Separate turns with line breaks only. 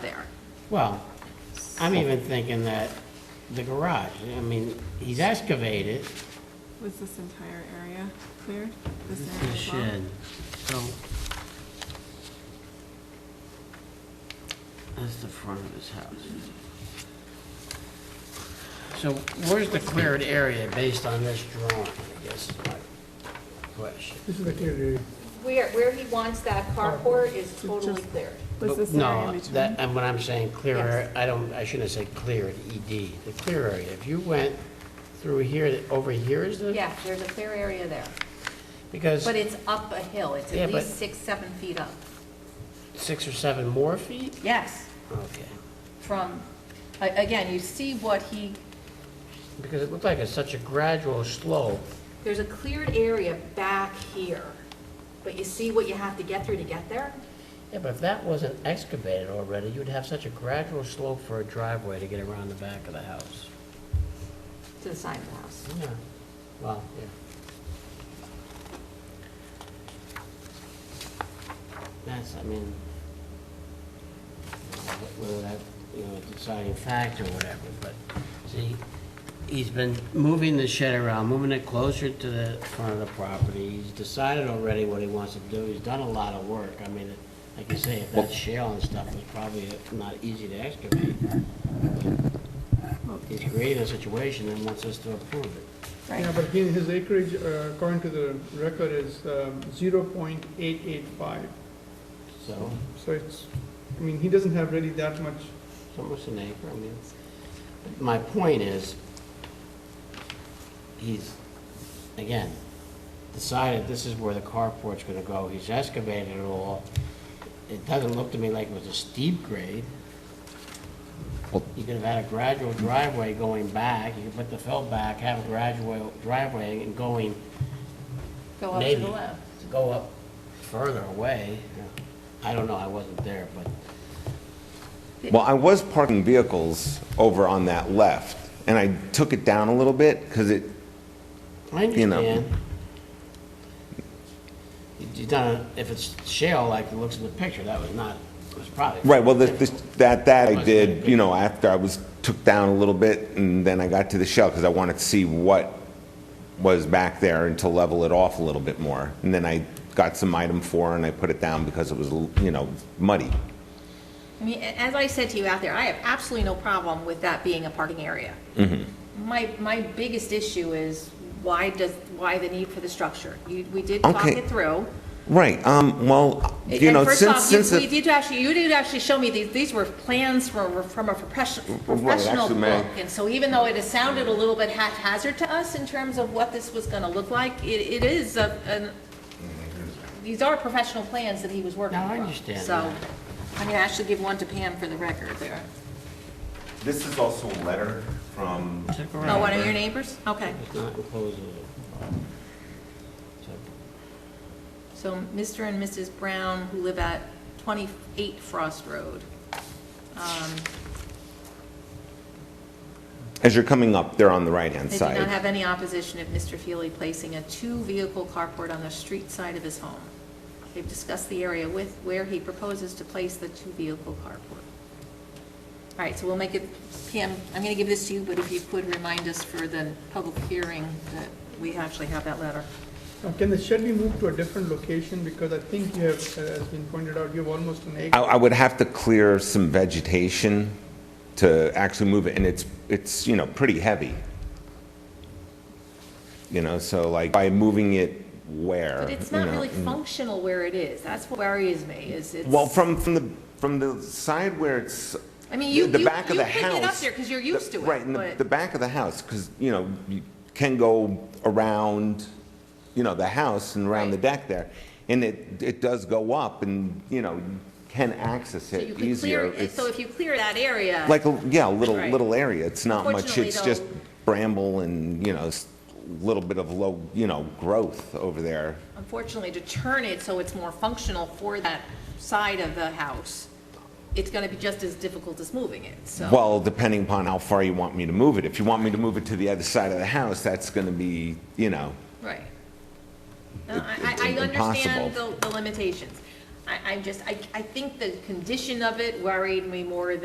Well, I'm even thinking that the garage, I mean, he's excavated,
Was this entire area cleared?
this is
area
a
as well?
shed, so. That's the front of his house. So where's the cleared area based on this drawing, I guess is my question.
This is the clear area.
Where, where he wants that carport is totally
Just-
cleared.
Was
But
this
no,
area in between?
that- And when I'm saying clear,
Yes.
area, I don't, I shouldn't say cleared, ED, the clear area. If you went through here, over here is the?
Yeah, there's a clear area there,
Because
but it's up a hill, it's
Yeah,
at
but-
least six, seven feet up.
six or seven more feet?
Yes,
Okay.
from, a- again, you see what he,
Because it looked like it's such a gradual slope.
there's a cleared area back here, but you see what you have to get through to get there?
Yeah, but if that wasn't excavated already, you'd have such a gradual slope for a driveway to get around the back of the house.
To the side of the house.
Yeah, well, yeah. That's, I mean, whether that, you know, a deciding factor or whatever, but, see, he's been moving the shed around, moving it closer to the front of the property, he's decided already what he wants to do, he's done a lot of work, I mean, like you say, if that's shale and stuff, it's probably not easy to excavate. He's created a situation and wants us to approve it.
Yeah, but his, his acreage, uh, according to the record, is um, zero point eight eight five.
So,
So it's, I mean, he doesn't have really that much,
it's almost an acre, I mean, my point is, he's, again, decided this is where the carport's gonna go, he's excavated it all. It doesn't look to me like it was a steep grade.
Well-
You could have had a gradual driveway going back, you could put the fill back, have a gradual driveway and going
Go up to
maybe
the left.
to go up further away. I don't know, I wasn't there, but
Well, I was parking vehicles over on that left, and I took it down a little bit, because it,
I
You know.
understand. You- You done, if it's shale, like it looks in the picture, that was not, it was probably.
right, well, this- this- that, that I did, you know, after I was, took down a little bit, and then I got to the shell, because I wanted to see what was back there and to level it off a little bit more. And then I got some item four, and I put it down because it was, you know, muddy.
I mean, a- as I said to you out there, I have absolutely no problem with that being a parking area. My, my biggest issue is why does, why the need for the structure? You, we did talk
Okay.
it through.
Right, um, well, you
And
know,
first
since,
off, you-
since. the-
We did actually, you did actually show me these, these were plans from, from a professional,
Right,
professional
actually, may I-
book. And so even though it has sounded a little bit haphazard to us in terms of what this was gonna look like, it, it is a, an, these are professional plans that he was working
No,
from.
I understand
So,
that.
I'm gonna actually give one to Pam for the record there.
This is also a letter from.
It's a garage.
Oh, one of your neighbors? Okay.
It's not enclosing it. So,
So Mr. and Mrs. Brown, who live at 28 Frost Road. Um,
As you're coming up, they're on the right-hand
They do
side.
not have any opposition of Mr. Feely placing a two-vehicle carport on the street side of his home. They've discussed the area with, where he proposes to place the two-vehicle carport. All right, so we'll make it, Pam, I'm going to give this to you, but if you could remind us for the public hearing that we actually have that letter.
Now, can the shed be moved to a different location? Because I think you have, uh, as been pointed out, you have almost an
I,
acre.
I would have to clear some vegetation to actually move it, and it's, it's, you know, pretty heavy. You know, so like, by moving it where?
But it's
you
not
know,
really
mm.
functional where it is. That's what worries me, is it's.
Well, from, from the, from the side where it's.
I mean, you-
the
you-
back of
you
the
pick it up
house,
there 'cause you're
the-
used to it,
Right, in the,
but-
the back of the house, because, you know, you can go around, you know, the house and around the
Right.
deck there. And it, it does go up and, you know, you can access
so you
it
could clear-
easier. It's-
So if you clear that area.
Like, a- yeah, a little,
Right.
little area, it's not much,
Unfortunately,
it's
though-
just bramble and, you know, s- little bit of low, you know, growth over there.
unfortunately, to turn it so it's more functional for that side of the house, it's gonna be just as difficult as moving it, so.
Well, depending upon how far you want me to move it, if you want me to move it to the other side of the house, that's gonna be, you know,
Right. No, I,
It's
I I
impossible.
understand the, the limitations. I, I just, I, I think the condition of it worried me more